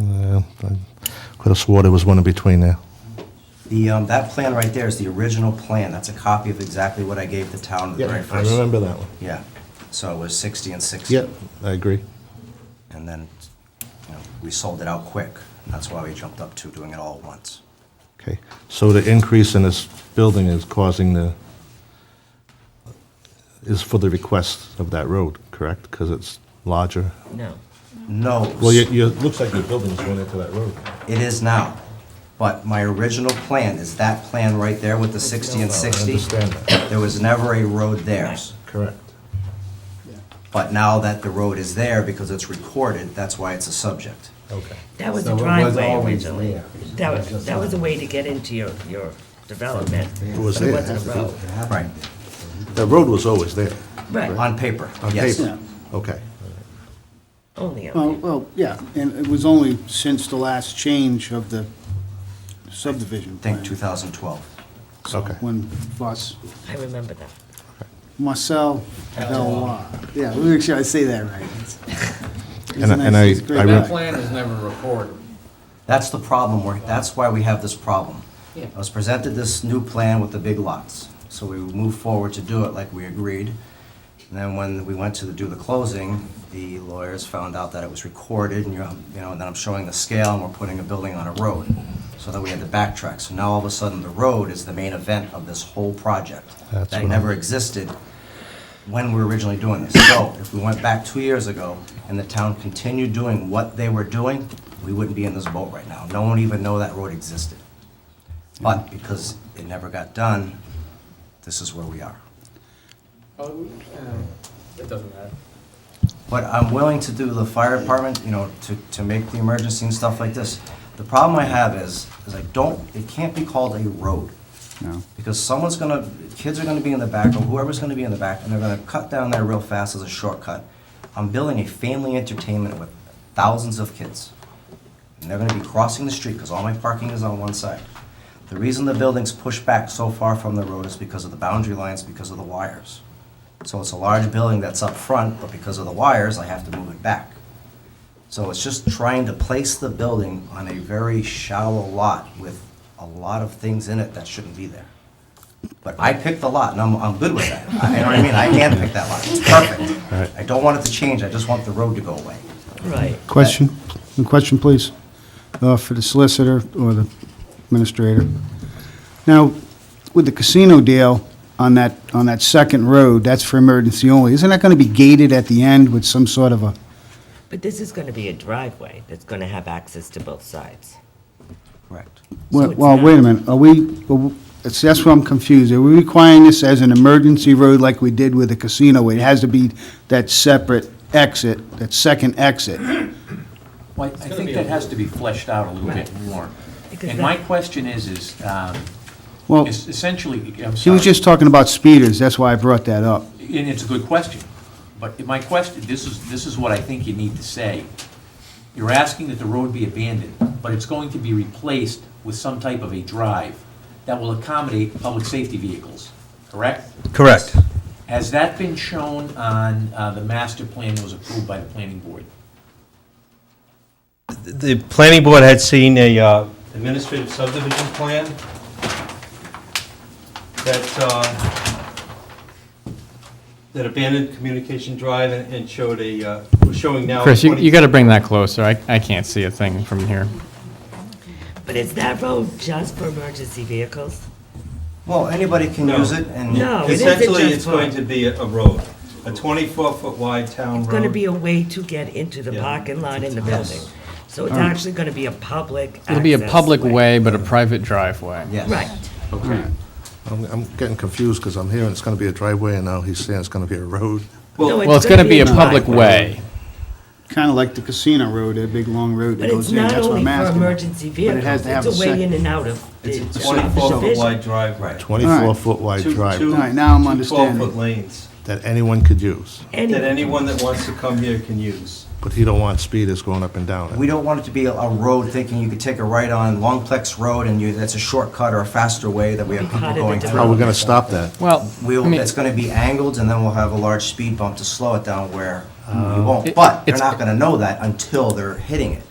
Yeah, I could have swore there was one in between there. The, um, that plan right there is the original plan. That's a copy of exactly what I gave the town the very I first. remember that one. Yeah. So it was 60 and 60. Yeah, I agree. And then, you know, we sold it out quick. That's why we jumped up to doing it all at once. Okay, so the increase in this building is causing the, is for the request of that road, correct? Because it's larger? No. No. Well, you, you, it looks like your building's going into that road. It is now. But my original plan is that plan right there with the 60 and No, 60. I understand that, There was never a road there. correct. But now that the road is there because it's recorded, that's why it's a subject. Okay. That was So a it was driveway always originally. there. It That was was, just that was a like- way to get into your, your development. It was but there. wasn't a road. Right. The road was always there, Right, On paper, on yes. paper? Okay. only a Well, well, yeah, and it was only since the last change of the subdivision I think plan. 2012. Okay. When Voss, I remember that. Marcel Valois, yeah, let me make sure I say that right. It's- it's And I- nice, and I- it's great. I That re- plan is never recorded. That's the problem, we're, that's why we have this problem. Yeah. I was presented this new plan with the big lots, so we moved forward to do it like we agreed. And then when we went to do the closing, the lawyers found out that it was recorded, and you're, you know, and then I'm showing the scale, and we're putting a building on a road. So then we had to backtrack, so now all of a sudden, the road is the main event of this whole project. That's That what never I'm- existed when we were originally doing this. So if we went back two years ago and the town continued doing what they were doing, we wouldn't be in this boat right now. No one would even know that road existed. But because it never got done, this is where we are. Oh, It doesn't matter. But I'm willing to do the fire department, you know, to, to make the emergency and stuff like this. The problem I have is, is I don't, it can't be called a road. No. Because someone's gonna, kids are gonna be in the back, or whoever's gonna be in the back, and they're gonna cut down there real fast as a shortcut. I'm building a family entertainment with thousands of kids. And they're gonna be crossing the street, because all my parking is on one side. The reason the building's pushed back so far from the road is because of the boundary lines, because of the wires. So it's a large building that's up front, but because of the wires, I have to move it back. So it's just trying to place the building on a very shallow lot with a lot of things in it that shouldn't be there. But I picked the lot, and I'm, I'm good with that. I- You know what I mean? I can pick that lot. It's perfect. I don't want it to change, I just want the road to go away. Right. Question, a question, please, uh, for the solicitor or the administrator. Now, with the casino deal on that, on that second road, that's for emergency only. Isn't that going to be gated at the end with some sort of a, But this is gonna be a driveway that's gonna have access to both sides. Correct. well, it's well, not- wait a minute, are we, are we- it's- that's where I'm confused. Are we requiring this as an emergency road like we did with the casino? where It has to be that separate exit, that second exit. Well, I I think that has to be fleshed out a little bit more. Because And that- my question is, is, um, Well, is essentially, I'm he sorry. was just talking about speeders, that's why I brought that up. And it's a good question, but my question, this is, this is what I think you need to say. You're asking that the road be abandoned, but it's going to be replaced with some type of a drive that will accommodate public safety vehicles, correct? Correct. Has that been shown on uh, the master plan that was approved by the planning board? The planning board had seen a uh, administrative subdivision plan that, uh, that abandoned Communication Drive and and showed a, uh, was showing now. Chris, you, 20 you gotta bring that closer. I, I can't see a thing from here. But is that road just for emergency vehicles? Well, anybody can No. use it, and. Oh, No, it isn't Essentially, just it's for- going to be a a road, a 24-foot wide town road. It's gonna be a way to get into the Yeah. parking lot in the building. So it's actually gonna be a public access. It'll be a public way, but a private driveway. Yes. Right, I'm, I'm getting confused because I'm hearing it's going to be a driveway and now he's saying it's going to be a road. No, Well, Well, it's gonna be a public driveway. way. kind of like the casino road, that big long road but that goes it's in, not that's what only I'm for asking. emergency But it vehicles, has to have it's a a way in second. and out of the. It's a of the 24-foot division. wide driveway. All right. 24-foot wide Two- two- driveway All right, now I'm two understanding. 12-foot lanes that anyone could use, Any- that anyone that wants to come here can use. but he don't want speeders going up and down it. We don't want it to be a- a road thinking you could take a right on Longplex Road and you, that's a shortcut or a faster way that we have Part people of the going How are we through. going to stop that? Well, I We'll, mean, it's gonna be angled, and then we'll have a large speed bump to slow it down where we won't. It- Oh. But they're it's- not gonna know that until they're hitting it.